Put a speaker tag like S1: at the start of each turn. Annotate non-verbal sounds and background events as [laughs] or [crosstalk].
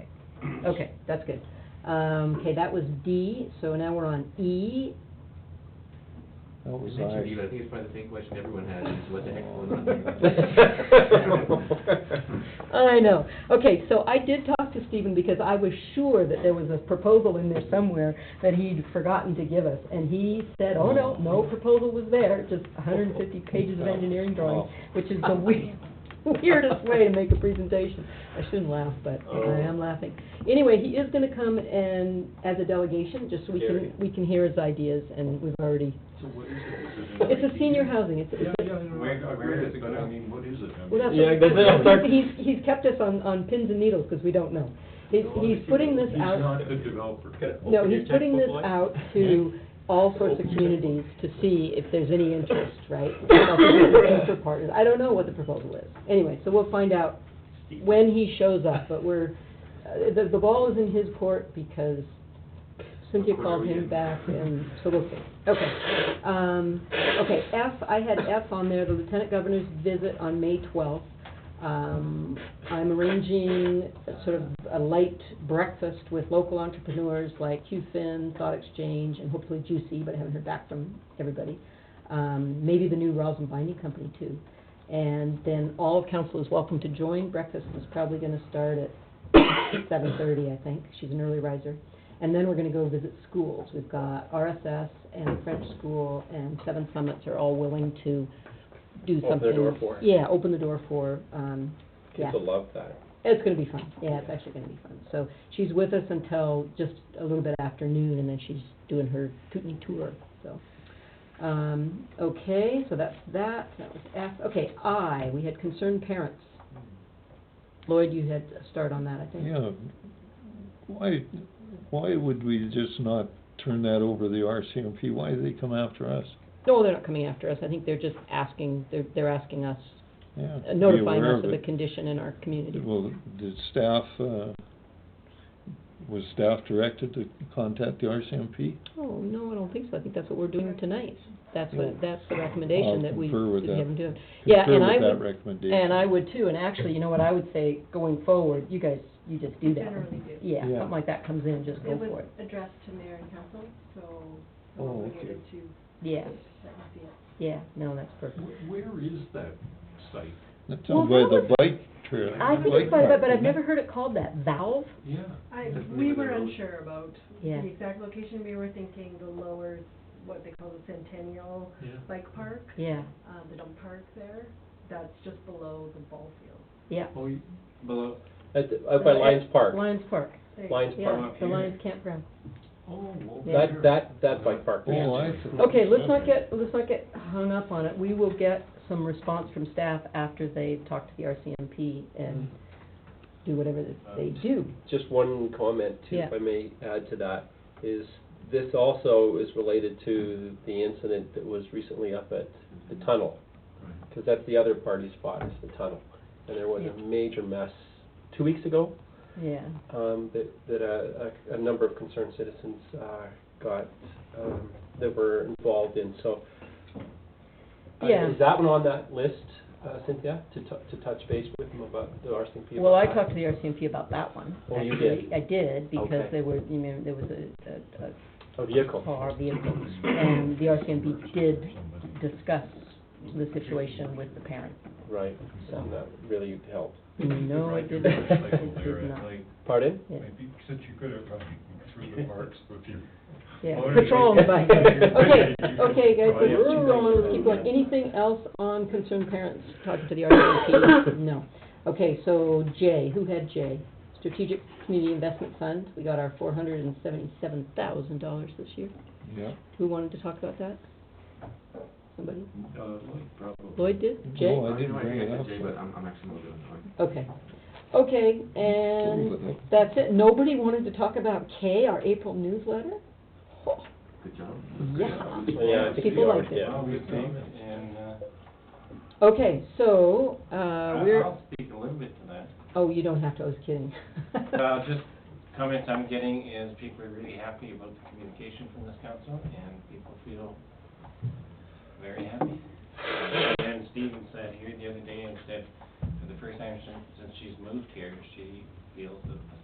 S1: Yes.
S2: Okay, that's good. Um, okay, that was D, so now we're on E.
S3: That was
S1: You mentioned
S3: I.
S1: Eva, I think it's probably the same question everyone has, is what the heck's going on
S3: [laughs]
S1: here?
S2: I know. Okay, so I did talk to Stephen because I was sure that there was a proposal in there somewhere that he'd forgotten to give us. And he said, oh, no, no proposal was there, just hundred and fifty pages of engineering drawings,
S3: Oh,
S2: which is the we- weirdest way to make a presentation. I shouldn't laugh, but I am laughing. Anyway, he is gonna come and, as a delegation, just so we can, we can hear his ideas and we've already,
S4: So what is it?
S2: it's a senior housing, it's, it's
S4: Yeah, yeah, yeah,
S5: We
S4: I
S5: agreed
S4: read
S5: it,
S4: it,
S5: but I
S4: yeah.
S5: mean, what is it? I
S2: Well, that's,
S5: mean,
S3: Yeah, that's- that's our-
S2: he's, he's kept us on, on pins and needles, because we don't know. He's, he's putting this
S5: He's
S2: out,
S5: not a developer.
S2: no, he's putting this out
S5: [laughs]
S2: to all sorts of communities to see if there's any interest, right? About the Future partners, I don't know what the proposal is. Anyway, so we'll find out when he shows up, but we're, uh, the, the ball is in his court because Cynthia called him back and, so we'll see. Okay, um, okay, F, I had F on there, the lieutenant governor's visit on May twelfth. Um, I'm arranging a sort of a light breakfast with local entrepreneurs like Q Fin, Thought Exchange, and hopefully Juicy, but I haven't heard back from everybody. Um, maybe the new Rosin Binding Company too. And then all of council is welcome to join. Breakfast is probably gonna start at seven thirty, I think. She's an early riser. And then we're gonna go visit schools. We've got RSS and French School and Seven Summits are all willing to do something.
S3: Open their door for it.
S2: Yeah, open the door for, um, yeah.
S3: Kids will love that.
S2: It's gonna be fun, yeah, it's actually gonna be fun. So she's with us until just a little bit after noon, and then she's doing her Kootenai tour, so. Um, okay, so that's that, that was F. Okay, I, we had concerned parents. Lloyd, you had a start on that, I think.
S3: Yeah, why, why would we just not turn that over to the RCMP? Why do they come after us?
S2: No, they're not coming after us, I think they're just asking, they're, they're asking us,
S3: Yeah.
S2: uh,
S3: be
S2: notifying
S3: aware
S2: us of the
S3: it.
S2: condition in our community.
S3: Well, did staff, uh, was staff directed to contact the RCMP?
S2: Oh, no, I don't think so, I think that's what we're doing tonight. That's what, that's the recommendation
S3: I'll
S2: that we,
S3: confer
S2: that
S3: with
S2: we
S3: that.
S2: haven't done. Yeah, and I
S3: Concur
S2: would-
S3: with that recommendation.
S2: And I would too, and actually, you know what, I would say, going forward, you guys, you just do that.
S6: Generally do.
S2: Yeah,
S3: Yeah.
S2: something like that comes in, just go
S6: It
S2: for
S6: was
S2: it.
S6: addressed to mayor and council, so
S3: Oh,
S6: we're
S3: okay.
S6: obligated to,
S2: Yeah,
S6: that would be it.
S2: yeah, no, that's perfect.
S5: Wh- Where is that site?
S3: That's
S2: Well,
S3: out by
S2: that
S3: the
S2: was-
S3: bike trail.
S2: I think
S3: bike
S2: it's quite,
S3: path,
S2: but I've
S3: isn't it?
S2: never heard it called that, valve?
S5: Yeah.
S6: I,
S5: That's
S6: we
S5: near the
S6: were
S5: road.
S6: unsure about the
S2: Yeah.
S6: exact location, we were thinking the lower, what they call the Centennial
S5: Yeah.
S6: Bike Park,
S2: Yeah,
S6: um, the dump park there, that's just below the ball field.
S2: yeah.
S5: Oh, you- below,
S7: At, the- out by Lions Park,
S2: Lions Park,
S6: There you go.
S7: Lions Park. Mm-hmm.
S2: yeah, the Lions Campground.
S5: oh, over
S2: Yeah.
S7: That, that, that bike park.
S2: Yeah.
S3: Oh, I see.
S2: Okay, let's not get, let's not get hung up on it. We will get some response from staff after they talk to the RCMP
S7: Mm-hmm.
S2: and do whatever that they
S7: Uh,
S2: do.
S7: Just one comment too,
S2: Yeah.
S7: if I may add to that, is this also is related to the incident that was recently up at the tunnel.
S5: Right.
S7: Because that's the other party spot, is the tunnel. And there was a
S2: Yeah.
S7: major mess two weeks ago,
S2: Yeah,
S7: um, that, that a, a, a number of concerned citizens, uh, got, um, that were involved in, so. uh,
S2: Yeah.
S7: Is that one on that list, uh, Cynthia, to tou- to touch base with them about the RCMP? about
S2: Well, I
S7: that?
S2: talked to the RCMP about that one.
S7: Oh, you
S2: actually.
S7: did?
S2: I did, because
S7: Okay.
S2: there were, you know, there was a, a,
S7: A
S2: a
S7: vehicle.
S2: car vehicle, and the RCMP did discuss the situation with the parent.
S7: Right, and that really helped.
S2: No, it
S5: Ride
S3: [laughs]
S5: your
S2: did not,
S5: motorcycle
S2: it
S5: there at
S2: did not,
S5: night.
S7: Pardon?
S2: yeah,
S5: Maybe, since you could have gone through the parks with your.
S2: yeah.
S5: Motor-
S2: Patrol and bike. Okay, okay, guys,
S5: Oh,
S2: so
S5: yeah.
S2: we're rolling, let's keep going. Anything else on concerned parents talking to the RCMP? No. Okay, so J, who had J? Strategic Community Investment Fund, we got our four hundred and seventy-seven thousand dollars this year.
S3: Yeah.
S2: Who wanted to talk about that? Somebody?
S5: Uh, Lloyd, probably.
S2: Lloyd did?
S3: No,
S2: Jay?
S3: I didn't bring it
S1: I
S3: up.
S1: said Jay, but I'm, I'm actually not doing it.
S2: Okay. Okay,
S3: Totally
S2: and
S3: with it.
S2: that's it. Nobody wanted to talk about K, our April newsletter? Oh,
S1: Good job.
S2: Yeah.
S7: Yeah, I think
S2: People
S7: we are,
S2: liked it.
S7: yeah.
S5: Well, we found it, and, uh,
S2: Okay, so, uh,
S4: I-
S2: we're,
S4: I'll speak a little bit to that.
S2: oh, you don't have to, I was kidding. [laughs]
S4: Uh, just comments I'm getting is people are really happy about the communication from this council, and people feel very happy. And Steven said here the other day, and said, for the first time since, since she's moved here, she feels that the